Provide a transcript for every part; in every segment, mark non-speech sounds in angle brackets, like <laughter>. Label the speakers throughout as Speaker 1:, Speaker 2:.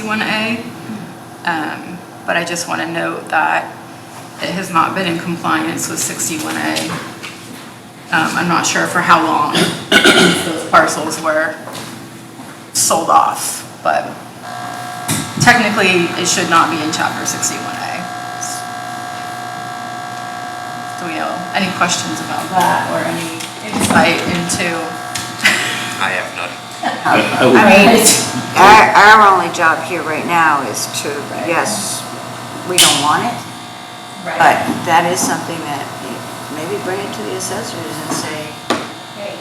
Speaker 1: 61A. Um, But I just want to note that it has not been in compliance with 61A. Um, I'm not sure for how long <coughs> those parcels were sold off, but technically, it should not be in Chapter 61A. Do we know, any questions about that or any insight into?
Speaker 2: I have none.
Speaker 3: I mean,
Speaker 4: Our, our only job here right now is to, yes, we don't want it, but that is something that maybe bring it to the assessors and say, hey.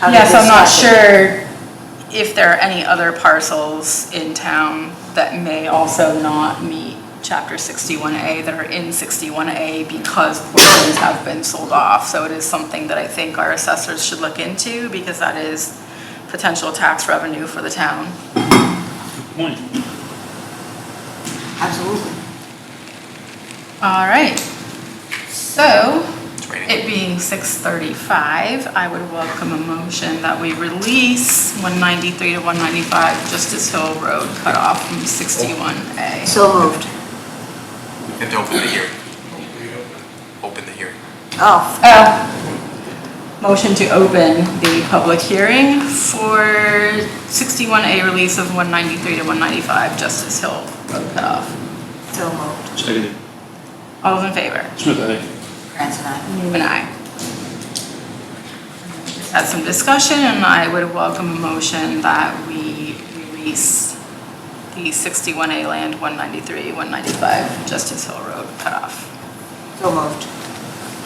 Speaker 4: how did
Speaker 1: Yes, I'm
Speaker 4: this
Speaker 1: not
Speaker 4: happen?
Speaker 1: sure if there are any other parcels in town that may also not meet chapter sixty-one A that are in sixty-one A because portions have been sold off. So it is something that I think our assessors should look into because that is potential tax revenue for the town.
Speaker 3: point.
Speaker 4: Absolutely.
Speaker 1: All right. So
Speaker 2: It's raining.
Speaker 1: It being 6:35, I would welcome a motion that we release 193 to 195 Justice Hill Road cut off from 61A.
Speaker 4: So moved.
Speaker 2: And to open the hearing. Open the hearing.
Speaker 4: Oh,
Speaker 1: Uh, Motion to open the public hearing for 61A release of 193 to 195 Justice Hill Road cut off.
Speaker 4: so moved.
Speaker 3: Seconded.
Speaker 1: All those in favor?
Speaker 3: Smith, aye.
Speaker 4: Grant's and I.
Speaker 1: Newman, aye. Had some discussion, and I would welcome a motion that we release the 61A land, 193, 195 Justice Hill Road cutoff.
Speaker 4: So moved.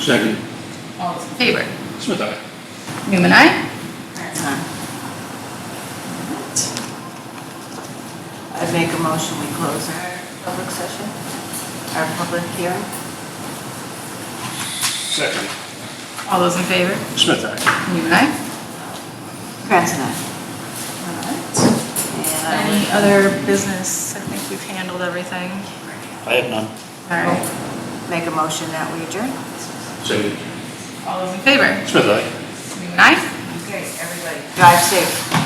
Speaker 3: Seconded.
Speaker 1: All those in favor?
Speaker 3: Smith, aye.
Speaker 1: Newman, aye.
Speaker 4: Grant's and I. I'd make a motion, we close our public session, our public hearing.
Speaker 3: Second.
Speaker 1: All those in favor?
Speaker 3: Smith, aye.
Speaker 1: Newman, aye.
Speaker 4: Grant's and I. And I would-
Speaker 1: Any other business? I think we've handled everything.
Speaker 3: I have none.
Speaker 1: All right.
Speaker 4: Make a motion that we adjourn.
Speaker 3: Seconded.
Speaker 1: All those in favor?
Speaker 3: Smith, aye.
Speaker 1: Newman, aye.
Speaker 4: Okay, everybody. Drive safe.